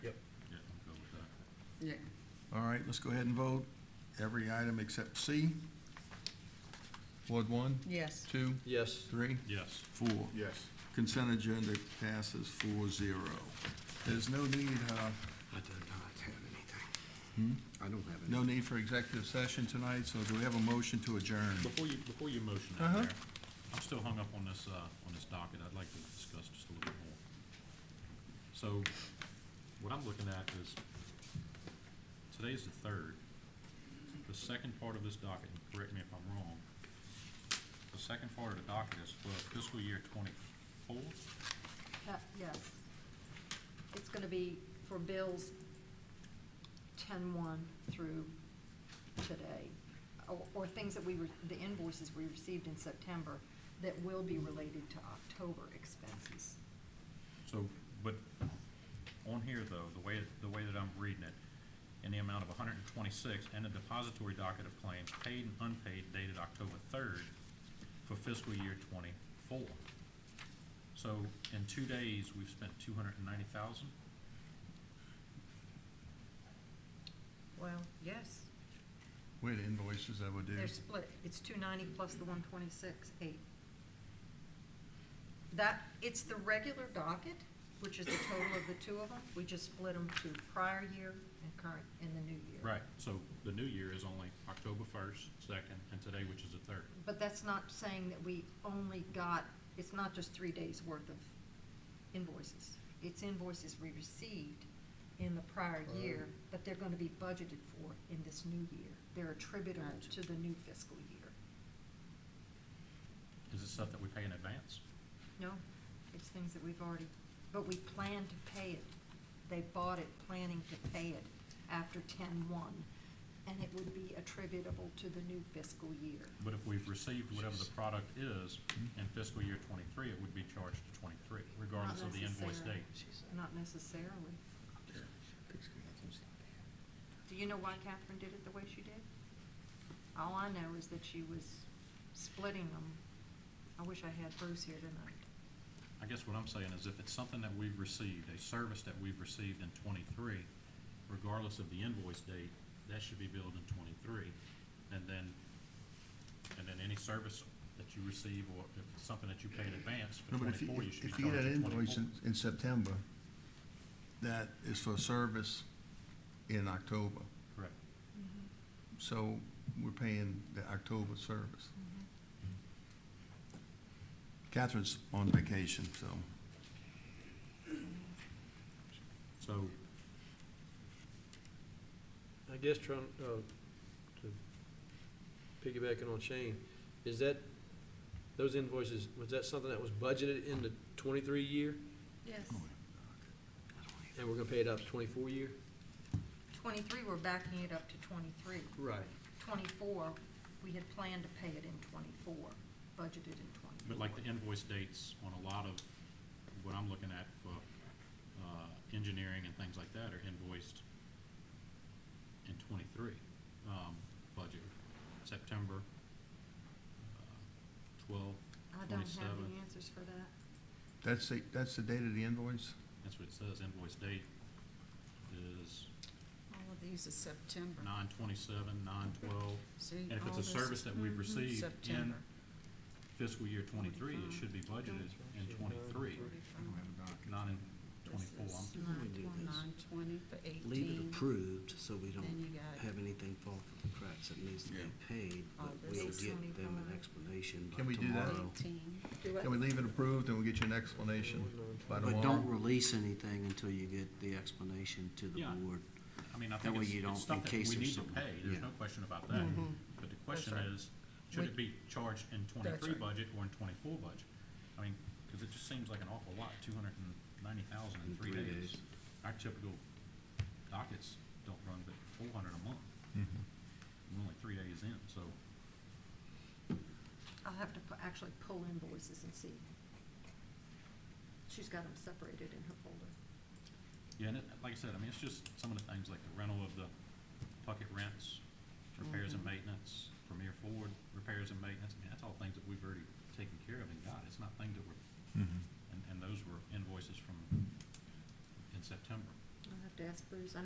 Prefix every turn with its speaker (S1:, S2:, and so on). S1: All right, let's go ahead and vote. Every item except C. Ward one,
S2: Yes.
S1: two,
S3: Yes.
S1: three,
S4: Yes.
S1: four.
S4: Yes.
S1: Consent agenda passes four zero. There's no need, uh, Hmm?
S3: I do not have anything. I don't have
S1: no need for executive session tonight, so do we have a motion to adjourn?
S4: Before you, before you motion
S1: Uh-huh.
S4: out there, I'm still hung up on this, uh, on this docket. I'd like to discuss just a little bit more. So what I'm looking at is, today's the third. The second part of this docket, and correct me if I'm wrong, the second part of the docket is for fiscal year twenty-four?
S5: Uh, Yes. It's going to be for bills 10-1 through today, or- or things that we, re- the invoices we received in September that will be related to October expenses.
S4: So, but on here though, the way, the way that I'm reading it, in the amount of hundred and twenty-six and a depository docket of claims paid and unpaid dated October third for fiscal year twenty-four. So in two days, we've spent two hundred and ninety thousand?
S5: Well, yes,
S1: Wait, invoices, I would do.
S5: they're split. It's 290 plus the 126, 8. That, it's the regular docket, which is the total of the two of them. We just split them to prior year and current and the new year.
S4: Right, so the new year is only October first, second, and today, which is the third.
S5: But that's not saying that we only got, it's not just three days' worth of invoices. It's invoices we received in the prior year, but they're gonna be budgeted for in this new year. They're attributable to the new fiscal year.
S4: Is it stuff that we pay in advance?
S5: No, it's things that we've already, but we plan to pay it. They bought it planning to pay it after ten-one, and it would be attributable to the new fiscal year.
S4: But if we've received whatever the product is in fiscal year twenty-three, it would be charged to twenty-three, regardless of the invoice
S5: necessarily.
S4: date.
S5: Not necessarily. Do you know why Catherine did it the way she did? All I know is that she was splitting them. I wish I had Bruce here tonight.
S4: I guess what I'm saying is if it's something that we've received, a service that we've received in twenty-three, regardless of the invoice date, that should be billed in twenty-three. And then, and then any service that you receive, or if it's something that you pay in advance for
S1: No, but if you,
S4: twenty-four, you should be
S1: if you
S4: charged
S1: get
S4: at
S1: an
S4: twenty-four.
S1: invoice in, in September, that is for service in October.
S4: Correct.
S6: Mm-hmm.
S1: So we're paying the October service.
S6: Mm-hmm.
S1: Catherine's on vacation, so
S4: So,
S3: I guess trying, uh, to piggybacking on Shane, is that, those invoices, was that something that was budgeted in the twenty-three year?
S2: Yes.
S3: And we're gonna pay it out to twenty-four year?
S5: Twenty-three, we're backing it up to twenty-three.
S3: Right.
S5: Twenty-four, we had planned to pay it in twenty-four, budgeted in twenty-four.
S4: but like the invoice dates on a lot of what I'm looking at for, uh, engineering and things like that are invoiced in twenty-three, um, budget, September, uh, twelve,
S5: I don't have the
S4: 27.
S5: answers for that.
S1: that's the, that's the date of the invoice?
S4: That's what it says, invoice date is
S2: All of these is September.
S4: nine twenty-seven, nine twelve.
S2: See,
S4: And if
S2: all
S4: it's a
S2: this-
S4: service that we've
S2: Mhm,
S4: received in
S2: September.
S4: fiscal year twenty-three, it should be budgeted in twenty-three, not in twenty-four. I'm-
S6: We do this.
S2: Nine twenty for
S6: leave it
S2: eighteen,
S6: approved, so we
S2: then
S6: don't
S2: you got
S6: have anything fall through the cracks that needs to be paid, but
S2: Oh, this
S6: we'll
S5: is
S6: get them an
S5: 25.
S6: explanation by
S1: Can we do that?
S6: tomorrow.
S2: eighteen.
S1: Can we leave it approved and we'll get you an explanation by tomorrow?
S6: But don't release anything until you get the explanation to the
S4: Yeah.
S6: board.
S4: I mean, I
S6: That
S4: think
S6: way
S4: it's,
S6: you don't-
S4: it's stuff
S6: in
S4: that we
S6: case there's
S4: need to
S6: something-
S4: pay,
S6: yeah.
S4: there's no question about that. But the question
S2: Mm-hmm. right.
S4: is, should
S2: We-
S4: it be charged in twenty-three
S2: right.
S4: budget or in twenty-four budget? I mean, cause it just seems like an awful lot, two hundred and ninety thousand in three days. Our typical dockets don't run but four hundred a month. Mm-hmm. We're only three days in, so
S5: I'll have to pu- actually pull invoices and see. She's got them separated in her folder.
S4: Yeah, and it, like I said, I mean, it's just some of the things like the rental of the bucket rents, repairs and
S2: Mm-hmm.
S4: maintenance, Premier Ford, repairs and maintenance, I mean, that's all things that we've already taken care of and got, it's not things that were, and, and those were invoices from in September.
S5: I'll have to ask Bruce. I